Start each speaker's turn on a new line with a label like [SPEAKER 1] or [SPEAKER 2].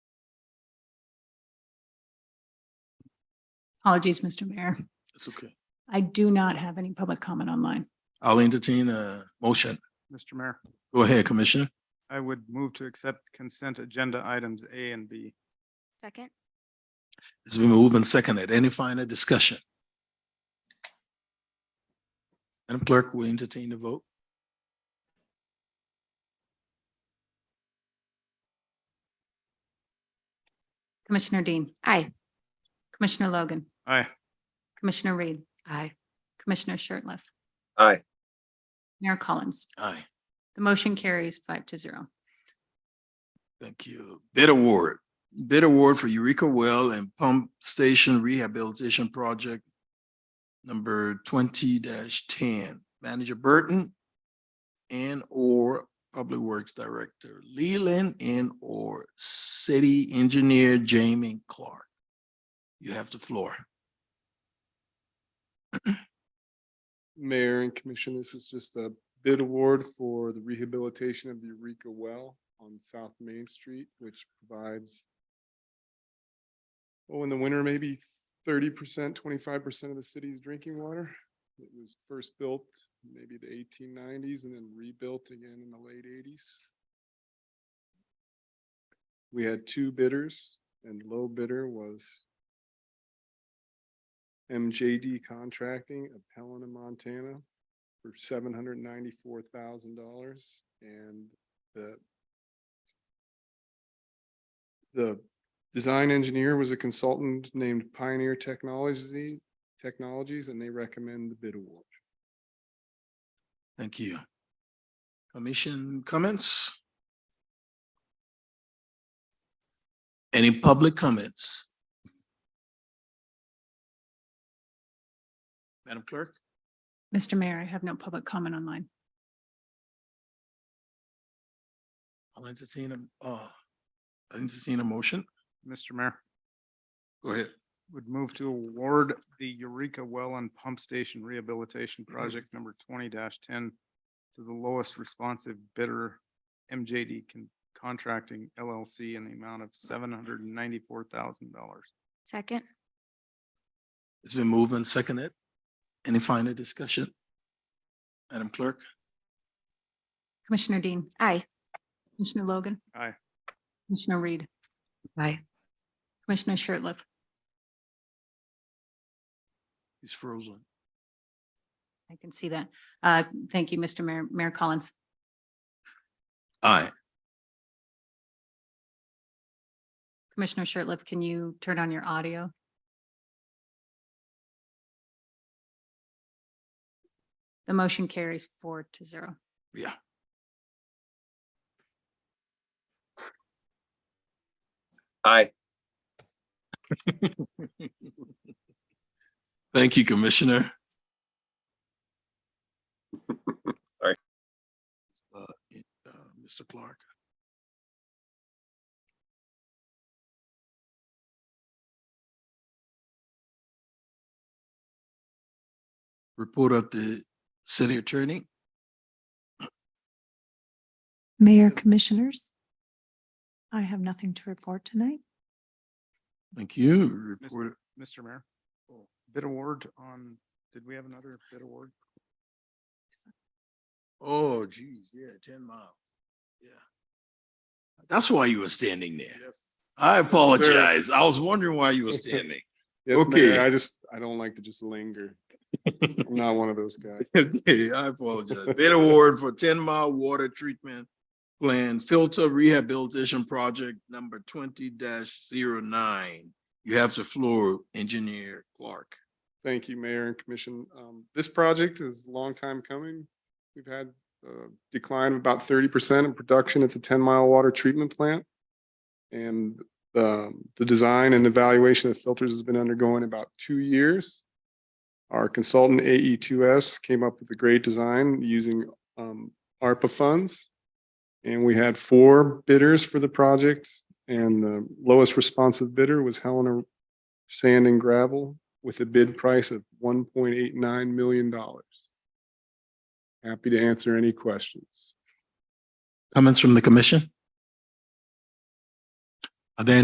[SPEAKER 1] Apologies, Mr. Mayor.
[SPEAKER 2] It's okay.
[SPEAKER 1] I do not have any public comment online.
[SPEAKER 2] I'll entertain a motion.
[SPEAKER 3] Mr. Mayor,
[SPEAKER 2] Go ahead, Commissioner.
[SPEAKER 3] I would move to accept consent agenda items A and B.
[SPEAKER 4] Second?
[SPEAKER 2] It's been moved and seconded. Any final discussion? Madam Clerk, will you entertain the vote?
[SPEAKER 1] Commissioner Dean,
[SPEAKER 4] Aye.
[SPEAKER 1] Commissioner Logan,
[SPEAKER 3] Aye.
[SPEAKER 1] Commissioner Reed.
[SPEAKER 4] Aye.
[SPEAKER 1] Commissioner Shertliff,
[SPEAKER 5] Aye.
[SPEAKER 1] Mayor Collins.
[SPEAKER 2] Aye,
[SPEAKER 1] The motion carries five to zero.
[SPEAKER 2] thank you. Bid award. Bid award for Eureka Well and Pump Station Rehabilitation Project number twenty ten. Manager Burton and or Public Works Director Leland and or City Engineer Jamie Clark. You have the floor.
[SPEAKER 6] Mayor and Commission, this is just a bid award for the rehabilitation of the Eureka Well on South Main Street, which provides oh, in the winter, maybe thirty percent, twenty-five percent of the city's drinking water. It was first built maybe the eighteen nineties and then rebuilt again in the late eighties. We had two bidders and low bidder was MJD Contracting of Helena, Montana for seven hundred ninety-four thousand dollars and the the design engineer was a consultant named Pioneer Technology, Technologies, and they recommend the bid award.
[SPEAKER 2] Thank you. Commission comments? Any public comments? Madam Clerk?
[SPEAKER 1] Mr. Mayor, I have no public comment online.
[SPEAKER 2] I'll entertain a, uh, I'll entertain a motion.
[SPEAKER 3] Mr. Mayor,
[SPEAKER 2] Go ahead.
[SPEAKER 3] would move to award the Eureka Well and Pump Station Rehabilitation Project number twenty ten to the lowest responsive bidder, MJD Con- Contracting LLC in the amount of seven hundred and ninety-four thousand dollars.
[SPEAKER 4] Second?
[SPEAKER 2] It's been moved and seconded. Any final discussion? Madam Clerk?
[SPEAKER 1] Commissioner Dean,
[SPEAKER 4] Aye.
[SPEAKER 1] Commissioner Logan.
[SPEAKER 3] Aye.
[SPEAKER 1] Commissioner Reed,
[SPEAKER 4] Aye.
[SPEAKER 1] Commissioner Shertliff,
[SPEAKER 2] He's frozen.
[SPEAKER 1] I can see that. Uh, Thank you, Mr. Mayor, Mayor Collins.
[SPEAKER 2] Aye.
[SPEAKER 1] Commissioner Shertliff, can you turn on your audio? The motion carries four to zero.
[SPEAKER 2] Yeah.
[SPEAKER 5] Aye.
[SPEAKER 2] Thank you, Commissioner.
[SPEAKER 5] Sorry.
[SPEAKER 2] Uh, it, uh, Mr. Clark. Report of the city attorney.
[SPEAKER 7] Mayor Commissioners, I have nothing to report tonight.
[SPEAKER 2] Thank you. Report,
[SPEAKER 3] Mr. Mayor, bid award on, did we have another bid award?
[SPEAKER 2] oh geez, yeah, ten mile. Yeah. That's why you were standing there.
[SPEAKER 6] Yes.
[SPEAKER 2] I apologize. I was wondering why you were standing. Okay.
[SPEAKER 6] Okay, I just, I don't like to just linger. I'm not one of those guys.
[SPEAKER 2] Okay, I apologize. Bid award for ten mile water treatment plan filter rehabilitation project number twenty 9 You have the floor, engineer Clark.
[SPEAKER 6] Thank you, Mayor and Commission. Um, this project is a long time coming. We've had a decline of about thirty percent in production at the Ten Mile Water Treatment Plant. And um, the design and evaluation of filters has been undergoing about two years. Our consultant AE two S came up with a great design using um, ARPA funds. And we had four bidders for the project and the lowest responsive bidder was Helena Sand and Gravel with a bid price of one point eight nine million dollars. Happy to answer any questions.
[SPEAKER 2] Comments from the commission? Are there